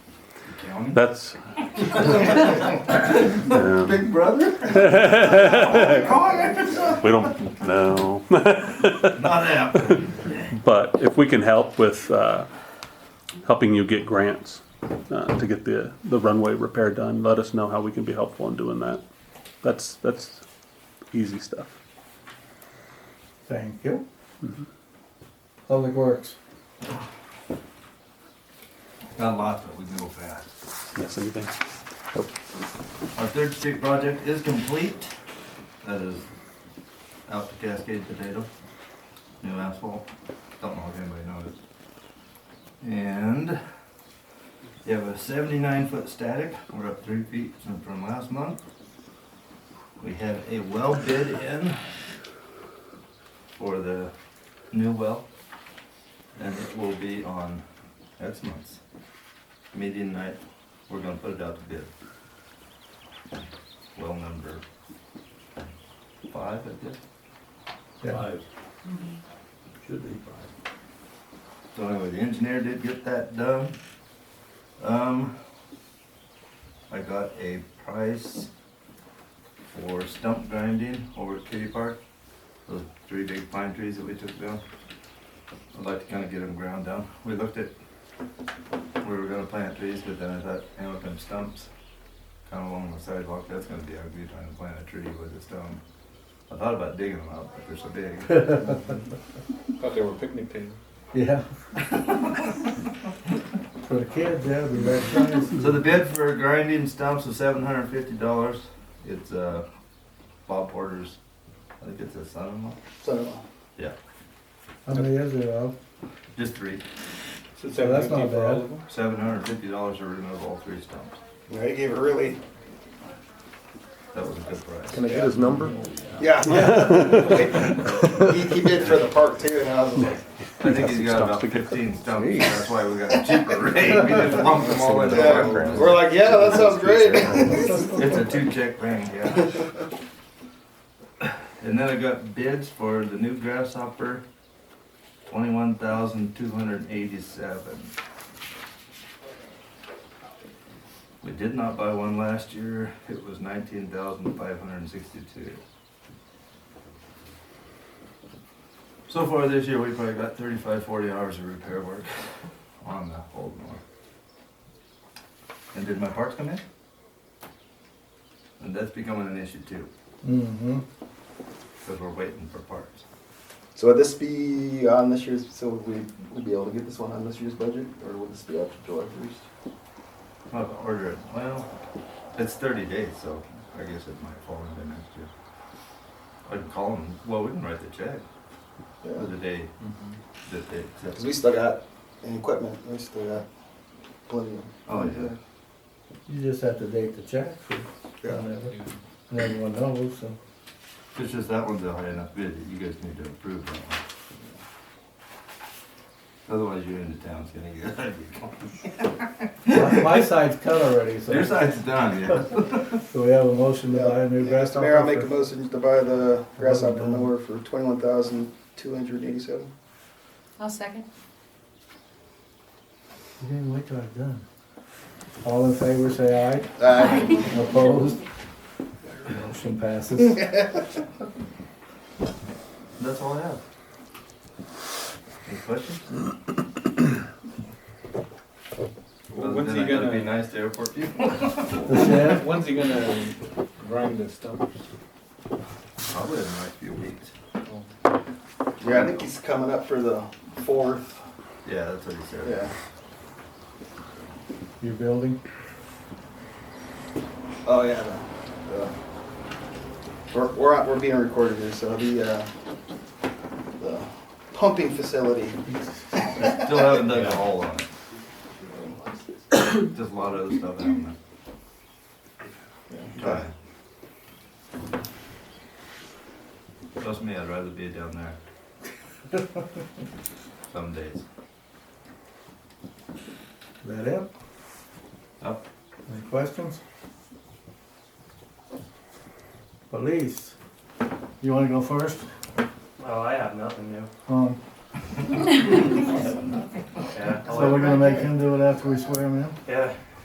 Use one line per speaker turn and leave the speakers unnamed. County.
That's. Yeah.
Big brother?
We don't know.
Not that.
But if we can help with uh, helping you get grants uh, to get the, the runway repair done, let us know how we can be helpful in doing that. That's, that's easy stuff.
Thank you.
Public Works.
Not a lot, but we can go fast.
Yes, anything?
Our third street project is complete. That is out to Cascade Potato. New asphalt. Don't know if anybody noticed. And you have a seventy-nine foot static. We're up three feet from- from last month. We have a well bid in for the new well. And it will be on next month's meeting night. We're gonna put it out to bid well number five, I guess.
Five. Mm-hmm. Should be five.
So anyway, the engineer did get that done. Um, I got a price for stump grinding over at Kitty Park. Those three big pine trees that we took down. I'd like to kind of get them ground down. We looked at, we were gonna plant trees, but then I thought, you know, with them stumps, kind of along the sidewalk, that's gonna be ugly trying to plant a tree with a stump. I thought about digging them up, but they're so big.
Thought they were picnic tables.
Yeah. For the kids, yeah, it'd be very nice.
So the bid for grinding stumps was seven hundred and fifty dollars. It's uh, Bob Porter's, I think it's his son-in-law,
So,
How many is there of?
just three.
So that's not bad.
Seven hundred and fifty dollars to remove all three stumps.
They gave a really,
That was a good price.
Can I get his number?
yeah. He, he did for the park too, and I was like,
I think he's got about fifteen stumps, that's why we got a cheaper rate. We just lumped them all in
yeah.
there.
We're like, yeah, that sounds great.
It's a two-check thing, yeah. And then I got bids for the new grasshopper, twenty-one thousand two hundred and eighty-seven. We did not buy one last year, it was nineteen thousand five hundred and sixty-two. So far this year, we probably got 35, 40 hours of repair work on the old one. And did my parts come in? And that's becoming an issue too,
Mm-hmm.
because we're waiting for parts.
So would this be on this year's, so would we, would be able to get this one on this year's budget, or would this be after July first?
I'll have to order it, well, it's thirty days, so I guess it might fall into next year. I can call them, well, we can write the check for
Yeah,
the day that they accept.
cause we still got an equipment, we still got plenty of.
Oh, yeah.
You just have to date the check for
Yeah.
whenever. And everyone knows, so.
It's just that one's a high enough bid that you guys need to approve that one. Otherwise, you're into town's gonna get.
My- My side's cut already, so.
Your side's done, yeah.
So we have a motion to
Yeah.
buy a new
Mr.
grasshopper.
Mayor, I'll make
for-
a motion to buy the grasshopper mower for twenty-one thousand two hundred eighty-seven.
I'll second.
You didn't wait till I've done. All in favor, say
Aye.
aye. Opposed? Motion passes.
That's all I have. Any questions? Other
When's
than
he
I gotta Be
gonna,
nice to airport people.
The shed,
when's he gonna grind the stumps?
Probably in the next few weeks.
Yeah, I think he's coming up for the fourth,
Yeah, that's what he said.
yeah.
your building,
Oh, yeah. the- the- We're, we're, on- we're being recorded here, so the, uh, the pumping facility.
Still haven't done the whole on it. Just a lot of other stuff happening.
Uh,
Trust me, I'd rather be down there. Some days.
is that it?
Up.
Any questions? Police, you wanna go first?
Oh, I have nothing new.
Um,
Yeah, I'll
so we're
let-
gonna make him do it after we swear him in?
yeah.